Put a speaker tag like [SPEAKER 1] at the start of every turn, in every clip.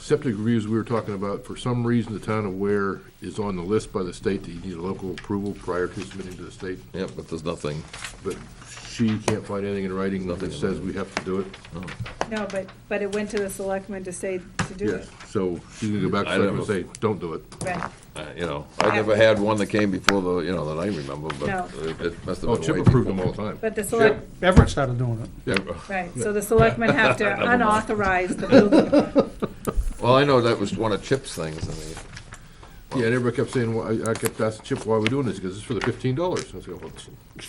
[SPEAKER 1] septic reviews we were talking about, for some reason, the town of Ware is on the list by the state that you need a local approval prior to submitting to the state,
[SPEAKER 2] Yep, but there's nothing.
[SPEAKER 1] but she can't find anything in writing
[SPEAKER 2] Nothing
[SPEAKER 1] that
[SPEAKER 2] in
[SPEAKER 1] says
[SPEAKER 2] writing.
[SPEAKER 1] we have to do it.
[SPEAKER 3] No, but, but it went to the selectmen to say, to do
[SPEAKER 1] Yes,
[SPEAKER 3] it.
[SPEAKER 1] so she's gonna go back to
[SPEAKER 2] I don't
[SPEAKER 1] them and say, don't do it.
[SPEAKER 3] Right.
[SPEAKER 2] Uh, You know, I never had one that came before the, you know, that I remember,
[SPEAKER 3] No.
[SPEAKER 2] but it- it must have been
[SPEAKER 1] Oh,
[SPEAKER 2] way
[SPEAKER 1] Chip
[SPEAKER 2] before.
[SPEAKER 1] approved them all the time.
[SPEAKER 3] But the select,
[SPEAKER 4] Everett started doing it.
[SPEAKER 1] Yeah.
[SPEAKER 3] right, so the selectmen have to unauthorize the building.
[SPEAKER 2] Well, I know that was one of Chip's things, I mean,
[SPEAKER 1] Yeah, and everybody kept saying, why- I I kept asking Chip, why are we doing this? Because it's for the fifteen dollars. I was like, well, it's-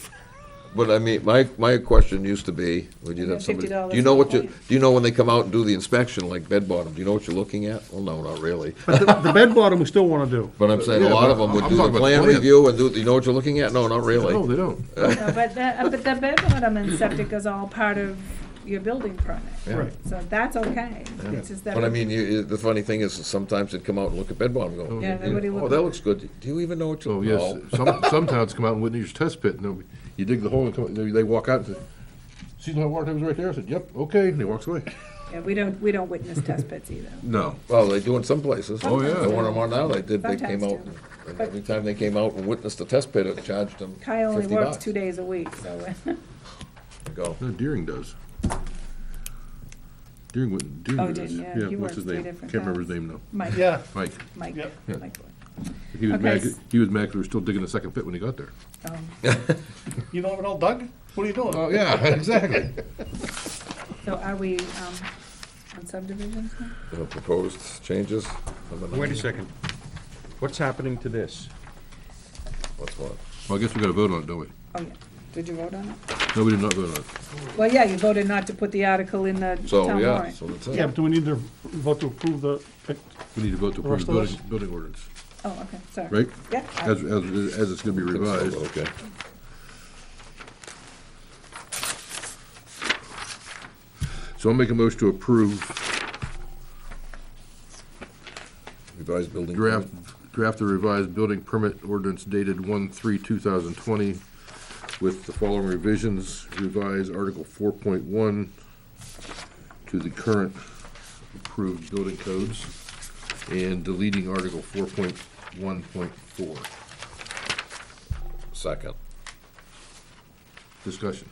[SPEAKER 2] but I mean, my, my question used to be, would you have somebody,
[SPEAKER 3] $50
[SPEAKER 2] do you know what you,
[SPEAKER 3] a plant.
[SPEAKER 2] do you know when they come out and do the inspection, like bed bottom, do you know what you're looking at? Well, no, not really,
[SPEAKER 4] But the, the bed bottom, we still wanna do.
[SPEAKER 2] but I'm saying a
[SPEAKER 1] Yeah,
[SPEAKER 2] lot of
[SPEAKER 1] but
[SPEAKER 2] them would
[SPEAKER 1] I'm
[SPEAKER 2] do
[SPEAKER 1] talking
[SPEAKER 2] the
[SPEAKER 1] about
[SPEAKER 2] plan
[SPEAKER 1] plan.
[SPEAKER 2] review and do, you know what you're looking at? No, not
[SPEAKER 1] no,
[SPEAKER 2] really.
[SPEAKER 1] they don't.
[SPEAKER 3] No, But the, uh, but the bedroom and septic is all part of your building permit.
[SPEAKER 4] Right.
[SPEAKER 3] So that's okay. It's just that.
[SPEAKER 2] But I mean, you- you, the funny thing is, sometimes they'd come out and look at bed bottom, and go,
[SPEAKER 3] Yeah,
[SPEAKER 2] "Oh,
[SPEAKER 3] nobody looked.
[SPEAKER 2] that looks good, do you even know what
[SPEAKER 1] So
[SPEAKER 2] you're,
[SPEAKER 1] Oh,
[SPEAKER 2] Oh,
[SPEAKER 1] yes,
[SPEAKER 2] no,
[SPEAKER 1] some, some towns come out and witness your test pit, and they'll- you dig the hole, and come- they they walk out and say, see the water table's right there? I said, yep, okay, and he walks away.
[SPEAKER 3] Yeah, we don't, we don't witness test pits either.
[SPEAKER 1] No.
[SPEAKER 2] well, they do in some places.
[SPEAKER 1] Oh, yeah.
[SPEAKER 2] The one I'm on now, they did, they came out,
[SPEAKER 3] Sometimes
[SPEAKER 2] and every time they came out and witnessed the test pit, it charged them fifty bucks.
[SPEAKER 3] Kyle only works two days a week, so. uh,
[SPEAKER 2] Go.
[SPEAKER 1] No, Deering does. Deering, wouldn't- Deering
[SPEAKER 3] Oh,
[SPEAKER 1] does.
[SPEAKER 3] didn't, yeah, he
[SPEAKER 1] what's his
[SPEAKER 3] works three
[SPEAKER 1] name?
[SPEAKER 3] different
[SPEAKER 1] Can't remember his
[SPEAKER 3] towns.
[SPEAKER 1] name now.
[SPEAKER 3] Mike,
[SPEAKER 4] Yeah.
[SPEAKER 1] Mike.
[SPEAKER 3] Mike,
[SPEAKER 4] Yep.
[SPEAKER 1] Yeah.
[SPEAKER 3] Mike.
[SPEAKER 1] He was
[SPEAKER 3] Okay,
[SPEAKER 1] mad,
[SPEAKER 3] s-
[SPEAKER 1] he was mad 'cause we were still digging the second pit when he got there.
[SPEAKER 3] Um,
[SPEAKER 4] You don't even know Doug? What are you doing?
[SPEAKER 1] Oh, yeah, exactly.
[SPEAKER 3] So are we, um, on subdivisions now?
[SPEAKER 2] Uh, Proposed changes? Number nine.
[SPEAKER 5] Wait a second. What's happening to this?
[SPEAKER 2] What's what?
[SPEAKER 1] Well, I guess we gotta vote on it, don't we?
[SPEAKER 3] Oh, yeah. Did you vote on it?
[SPEAKER 1] No, we did not vote on it.
[SPEAKER 3] Well, yeah, you voted not to put the article in the
[SPEAKER 2] So,
[SPEAKER 3] town
[SPEAKER 2] yeah,
[SPEAKER 3] warrant.
[SPEAKER 2] so that's
[SPEAKER 4] Yeah,
[SPEAKER 2] it.
[SPEAKER 4] but do we need to vote to approve the,
[SPEAKER 1] We need to vote to
[SPEAKER 4] The
[SPEAKER 1] approve
[SPEAKER 4] rest
[SPEAKER 1] the
[SPEAKER 4] of
[SPEAKER 1] building, building ordinance,
[SPEAKER 3] Oh, okay, sorry.
[SPEAKER 1] right?
[SPEAKER 3] Yeah. I-
[SPEAKER 1] As, as, as it's gonna be revised.
[SPEAKER 2] Okay.
[SPEAKER 1] So I'll make a motion to approve
[SPEAKER 2] Revised building.
[SPEAKER 1] Draft,
[SPEAKER 2] permit.
[SPEAKER 1] draft the revised building permit ordinance dated one three two thousand twenty with the following revisions, revise Article four point one to the current approved building codes and deleting Article four point one point four.
[SPEAKER 2] Second.
[SPEAKER 1] Discussion.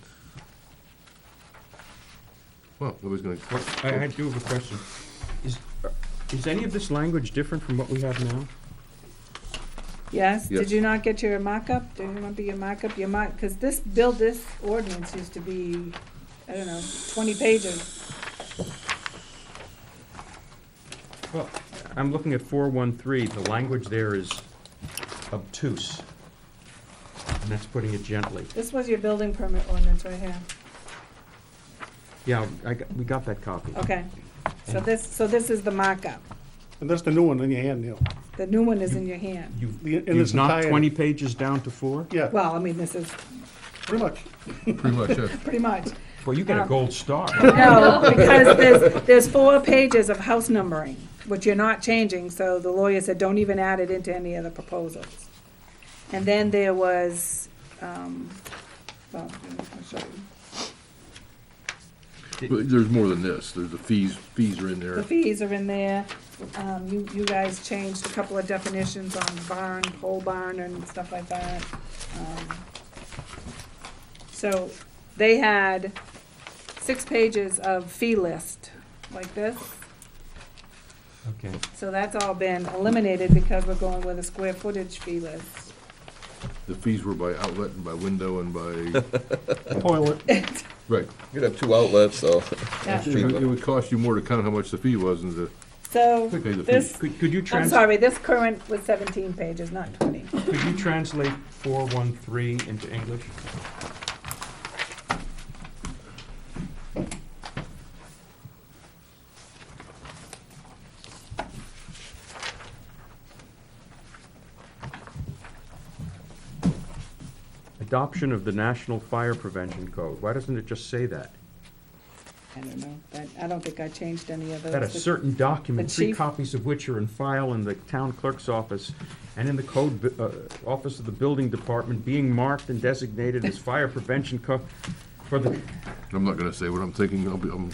[SPEAKER 1] Well, nobody's gonna,
[SPEAKER 5] What, I, I do have a question. Is, is any of this language different from what we have now?
[SPEAKER 3] Yes,
[SPEAKER 1] Yes.
[SPEAKER 3] did you not get your mock-up? Did you not be your mock-up, your mock, because this, build this ordinance used to be, I don't know, twenty pages.
[SPEAKER 5] Well, I'm looking at four one three, the language there is obtuse. And that's putting it gently.
[SPEAKER 3] This was your building permit ordinance right here.
[SPEAKER 5] Yeah, I, got- we got that copy.
[SPEAKER 4] Uh,
[SPEAKER 3] Okay, so this, so this is the mock-up.
[SPEAKER 4] and that's the new one in your hand, Neil.
[SPEAKER 3] The new one is in your hand.
[SPEAKER 5] You've,
[SPEAKER 4] The- in
[SPEAKER 5] you've
[SPEAKER 4] its
[SPEAKER 5] knocked
[SPEAKER 4] entirety.
[SPEAKER 5] twenty pages down to four?
[SPEAKER 4] Yeah,
[SPEAKER 3] Well, I mean, this is
[SPEAKER 4] pretty much.
[SPEAKER 1] pretty much, yeah.
[SPEAKER 3] pretty much.
[SPEAKER 5] Well, you
[SPEAKER 4] Uh,
[SPEAKER 5] get a
[SPEAKER 3] Um,
[SPEAKER 5] gold star.
[SPEAKER 3] No, because there's, there's four pages of house numbering, which you're not changing, so the lawyer said, don't even add it into any of the proposals. And then there was, um, well, I'll show you.
[SPEAKER 1] But there's more than this, there's the fees, fees are in
[SPEAKER 3] The
[SPEAKER 1] there.
[SPEAKER 3] fees are in there, um, you, you guys changed a couple of definitions on barn, pole barn and stuff like that. Um, So, they had six pages of fee list, like this.
[SPEAKER 5] Okay.
[SPEAKER 3] So that's all been eliminated because we're going with a square footage fee list.
[SPEAKER 1] The fees were by outlet and by window and by,
[SPEAKER 4] Toilet,
[SPEAKER 1] right.
[SPEAKER 2] You'd have two outlets, so.
[SPEAKER 3] Yeah.
[SPEAKER 1] It would- it would cost you more to count how much the fee was and the,
[SPEAKER 3] So
[SPEAKER 1] Okay, the fee-
[SPEAKER 3] this,
[SPEAKER 5] Could, could you
[SPEAKER 3] I'm
[SPEAKER 5] trans,
[SPEAKER 3] sorry, this current was seventeen pages, not twenty.
[SPEAKER 5] could you translate four one three into English? Adoption of the National Fire Prevention Code. Why doesn't it just say that?
[SPEAKER 3] I don't know, but I don't think I changed any of those.
[SPEAKER 5] That a certain document,
[SPEAKER 3] uh, The
[SPEAKER 5] three
[SPEAKER 3] chief-
[SPEAKER 5] copies of which are in file in the town clerk's office and in the code, bu- uh, office of the building department, being marked and designated as fire prevention co- for the,
[SPEAKER 1] I'm not gonna say what I'm thinking, I'll be, I'm